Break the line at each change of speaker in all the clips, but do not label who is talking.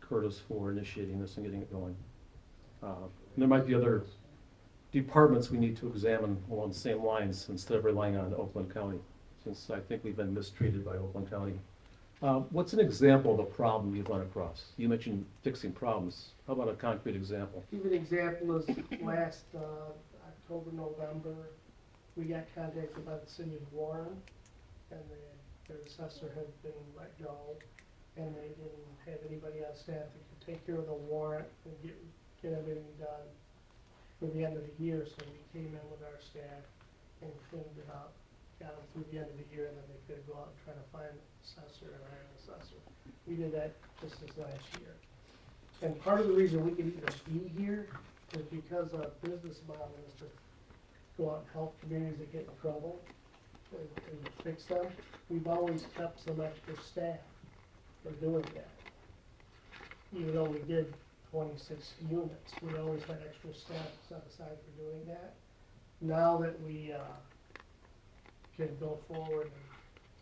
Curtis for initiating this and getting it going. Uh, There might be other departments we need to examine along the same lines instead of relying on Oakland County, since I think we've been mistreated by Oakland County. Uh, What's an example of a problem you've run across? You mentioned fixing problems. How about a concrete example?
Give an example is last uh, October, November, we got contacted by the city of Warren, and the- their assessor had been let go, and they didn't have anybody on staff that could take care of the warrant and get, get everything done for the end of the year, so we came in with our staff and cleaned it up, got them through the end of the year, and then they could go out and try to find an assessor and hire an assessor. We did that just this last year. And part of the reason we can even be here is because our business model is to go out and help communities that get in trouble and, and fix them. We've always kept some extra staff for doing that. Even though we did twenty-six units, we always had extra staff set aside for doing that. Now that we, uh, can go forward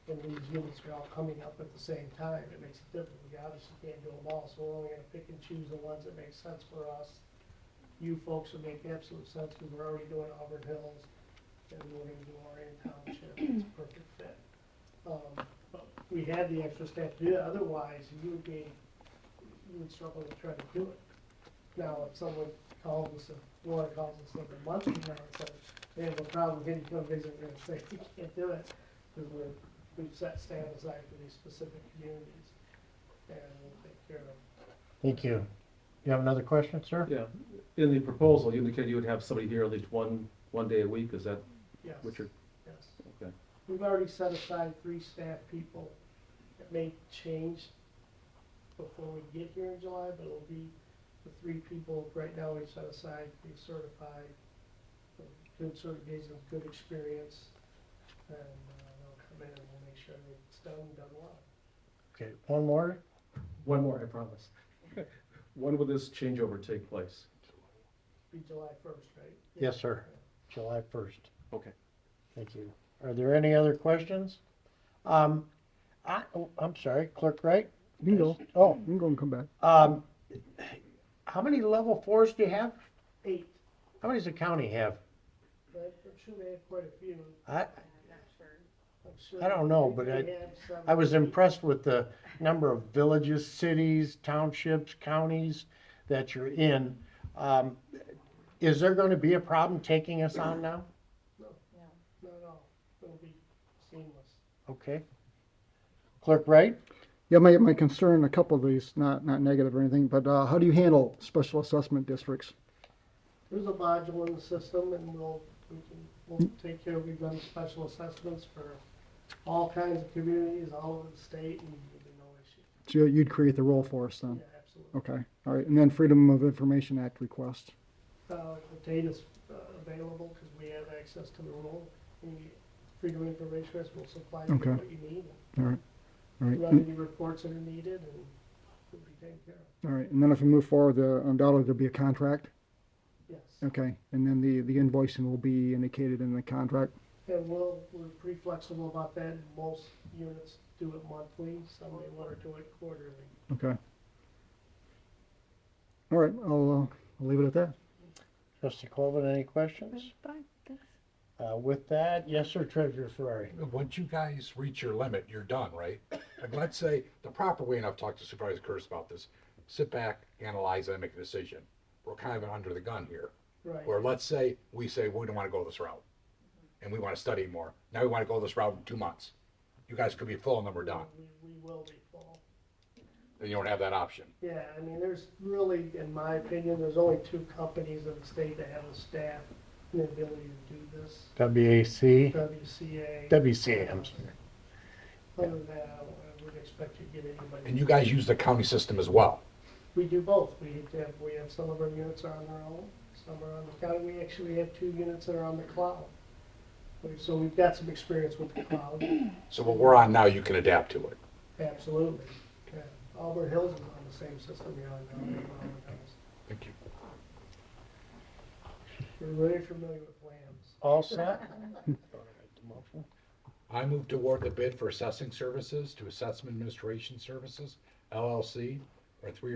and, and these units are all coming up at the same time, it makes it difficult. We obviously can't do them all, so we're only gonna pick and choose the ones that make sense for us you folks would make absolute sense, because we're already doing Auburn Hills, and we're gonna do Orion Township, it's a perfect fit. Um, but we had the extra staff to do that, otherwise you would be, you would struggle to try to do it. Now, if someone calls us, if Laura calls us like a month from now, and says, they have a problem, can you come visit, we're gonna say, you can't do it, because we're, we've set stand aside for these specific communities, and um, we'll take care of them.
Thank you. You have another question, sir?
Yeah, in the proposal, you indicated you would have somebody here at least one, one day a week. Is that
Yes.
what you're,
Yes.
okay?
We've already set aside three staff people. It may change before we get here in July, but it'll be the three people right now we set aside, be certified, um, with good certification, good experience, and uh, they'll come in and we'll make sure that it's done, done well.
Okay, one more?
One more, I promise. When will this changeover take place?
Be July first, right?
Yes, sir. July first.
Okay.
Thank you. Are there any other questions? Um, I, oh, I'm sorry, Clerk Wright?
You can go.
Oh,
You can go and come back.
um, how many level fours do you have?
Eight,
How many does the county have?
but I'm sure they have quite a few.
I,
I'm sure
I don't know, but
they
I-
have some-
I was impressed with the number of villages, cities, townships, counties that you're in. Um, is there gonna be a problem taking us on now?
No, no, it'll be seamless.
Okay. Clerk Wright?
Yeah, my, my concern, a couple of these, not, not negative or anything, but uh, how do you handle special assessment districts?
There's a module in the system and we'll, we can, we'll take care, we've done special assessments for all kinds of communities, all over the state and there'll be no issue.
So you- you'd create the role for us then?
Yeah, absolutely.
Hmm. Okay, all right. And then Freedom of Information Act request.
Uh, the data's uh, available because we have access to the rule. The Freedom of Information Act will supply you with
Okay.
what you need.
All right, all right.
Run any reports that are needed and we'll be taken care of.
All right, and then if we move forward, uh, undoubtedly there'll be a contract.
Yes.
Okay, and then the, the invoicing will be indicated in the contract.
And we'll, we're pretty flexible about that. Most units do it monthly, some may want to do it quarterly.
Okay. All right, I'll, uh, I'll leave it at that.
Trustee Colvin, any questions? Uh, with that, yes, sir, Treasurer Ferrari.
Once you guys reach your limit, you're done, right? And let's say, the proper way, and I've talked to Supervisor Curtis about this, sit back, analyze, and make a decision. We're kind of under the gun here.
Right.
Or let's say, we say, we don't want to go this route, and we want to study more. Now we want to go this route in two months. You guys could be full and then we're done,
We, we will be full.
and you don't have that option.
Yeah, I mean, there's really, in my opinion, there's only two companies in the state that have the staff and the ability to do this.
WAC,
WCA,
WCA, I'm sorry.
other than that, I wouldn't expect you to get
And
anybody.
you guys use the county system as well.
We do both. We have, we have some of our units are on their own, some are on the county. We actually have two units that are on the cloud. We- So we've got some experience with the cloud,
So what we're on now, you can adapt to it.
absolutely. Yeah. Auburn Hills is on the same system you're on now. we're on Auburn Hills.
Thank you.
We're really familiar with LAMs.
All set?
I move to award the bid for assessing services to Assessment Administration Services LLC for a three-year